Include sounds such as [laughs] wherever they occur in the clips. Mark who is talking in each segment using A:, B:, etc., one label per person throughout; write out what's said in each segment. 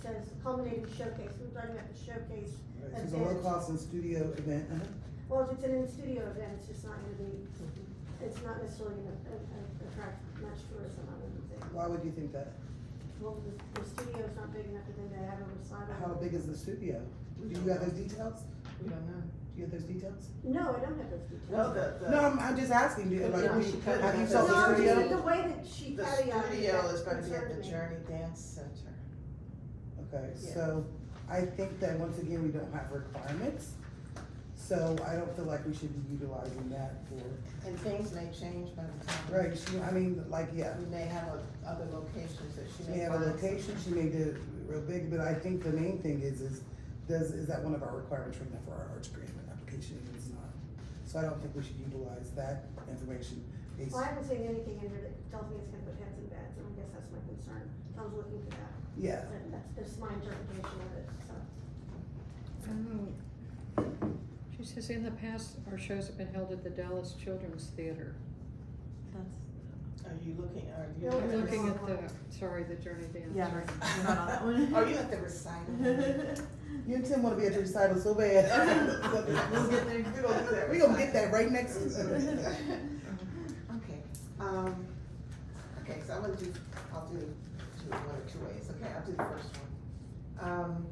A: says culminating showcase, we're talking about the showcase.
B: Right, so the world-class and studio event, uh-huh.
A: Well, if it's an in-studio event, it's just not gonna be, it's not necessarily gonna a- a- attract much tourism, I wouldn't think.
B: why would you think that?
A: Well, the, the studio's not big enough for them to have a recital.
B: How big is the studio? Do you have those details?
C: We don't know.
B: Do you have those details?
A: No, I don't have those details.
C: No, the, the.
B: No, I'm, I'm just asking, do, like,
C: Yeah,
B: we-
C: she could
B: have you
C: have
B: felt
A: No,
B: the
A: I'm just-
B: studio?
A: the way that she
C: The
A: caveated that
C: studio is gonna be at
A: concerned
C: the
A: me.
C: Journey Dance Center.
B: Okay,
C: Yeah.
B: so I think that once again, we don't have requirements, so I don't feel like we should be utilizing that for,
C: And things may change by the time.
B: right, she- I mean, like, yeah.
C: We may have a- other locations that she
B: She may have a
C: find.
B: location, she may do it real big, but I think the main thing is, is, does, is that one of our requirements right now for our arts grant application, and it's not. So I don't think we should utilize that information. It's-
A: Well, I haven't seen anything in here that tells me it's gonna put heads in beds, and I guess that's my concern. I was looking for that,
B: Yeah,
A: but that's, that's my interpretation of it, so.
D: I don't know. Um, She says, in the past, our shows have been held at the Dallas Children's Theater.
E: That's,
C: Are you looking, are you?
A: No,
D: I'm
C: [laughs]
D: looking at
A: Yeah.
D: the, sorry, the Journey Dance.
E: yeah, right, we're not on that one.
C: Are you at the recital?
D: [laughs]
C: [laughs]
E: [laughs]
B: you and Tim wanna be at the recital so bad. [laughs]
C: We'll get there, we gonna do that.
B: We gonna get that right next.
C: Okay, um, okay, so I'm gonna do, I'll do, do it one of two ways, okay, I'll do the first one. Um,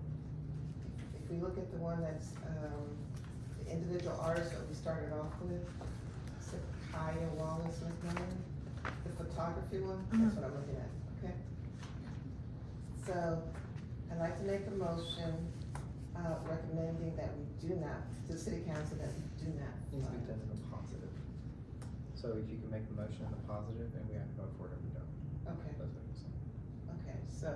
C: if we look at the one that's, um, the individual artist that we started off with, so Kaya Wallace McMillan, the photography one, that's what I'm looking at, okay? So, I'd like to make a motion, uh, recommending that we do not, to the city council, that we do not.
F: Needs to be
C: fund.
F: done in the positive. So if you can make the motion in the positive and we have to vote for it or we don't,
C: Okay.
F: that's what I'm saying.
C: Okay, so,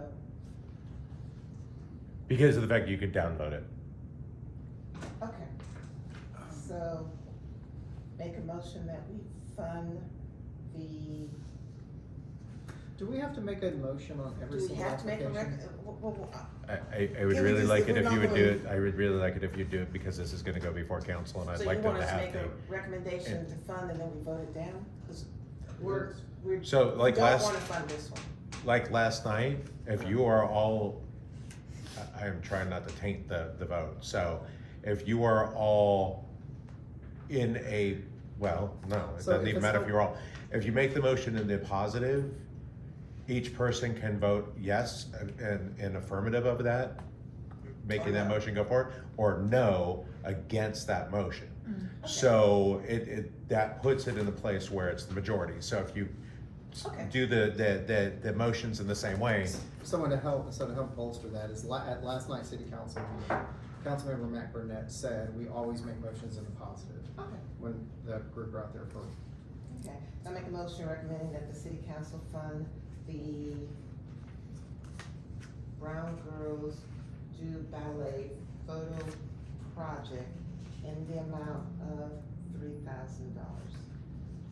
G: Because of the fact you could download it.
C: okay, so make a motion that we fund the,
F: Do we have to make a motion on every
C: do we
F: single
C: have to make a rec-
F: application?
C: uh, w- w- w- uh,
G: I, I, I would
B: Can we
G: really
B: just-
G: like it
B: we're
G: if you
B: not
G: would do
B: gonna-
G: it, I would really like it if you do it because this is gonna go before council and I'd
C: So you
G: like them
C: want
G: to
C: us to make
G: have
C: a
G: the.
C: recommendation
G: and-
C: to fund and then we vote it down? Cause we're, we're.
G: So,
C: we
G: like
C: Don't
G: last-
C: wanna fund this one.
G: Like last night, if you are all, I, I am trying not to taint the, the vote, so if you are all in a, well, no, it
F: So
G: doesn't
F: if
G: even
F: it's
G: matter
F: not-
G: if you're all, if you make the motion in the positive, each person can vote yes and, and affirmative of that, making that
C: no.
G: motion go forward, or no against that motion. So it, it, that puts it in the place where it's the majority. So if you s-
C: Okay.
G: do the, the, the, the motions in the same way,
F: Someone to help, so to help bolster that is la- at last night's city council meeting, Councilmember Mac Burnett said, we always make motions in the positive
C: Okay,
F: when the group are out there for
C: okay, so I make a motion recommending that the city council fund the Brown Girls Do Ballet Photo Project in the amount of three thousand dollars.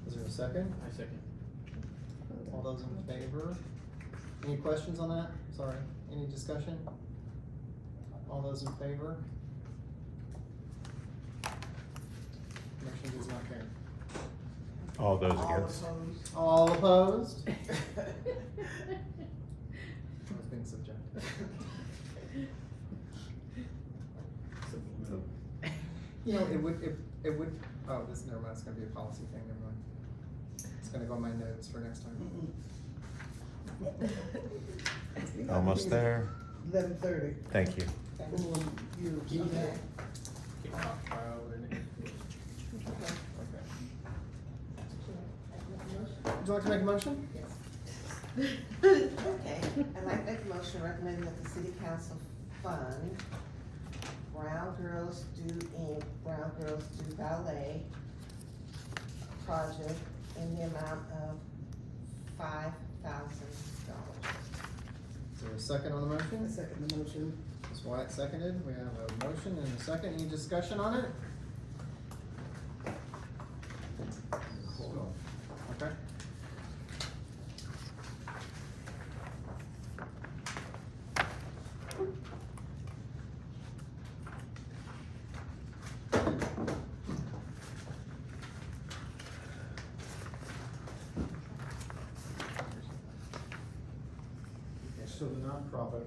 F: Is there a second?
H: I second.
F: All those in favor? Any questions on that? Sorry, any discussion? All those in favor? Motion does not carry.
G: all those against.
F: All [laughs] opposed? I was being subjective. You know, it would, it, it would, oh, this, never mind, it's gonna be a policy thing, never mind. It's gonna go in my notes for next time.
D: [laughs]
F: [laughs]
G: Almost there.
B: Eleven thirty.
G: Thank you.
C: Okay.
F: Would you like to make a motion?
C: Okay, I'd like to make a motion recommending that the city council fund Brown Girls Do Inc., Brown Girls Do Ballet project in the amount of five thousand dollars.
F: Is there a second on the
B: I
F: motion?
B: second the motion.
F: Ms. Wyatt seconded, we have a motion and a second, any discussion on it? Okay.
H: So the nonprofit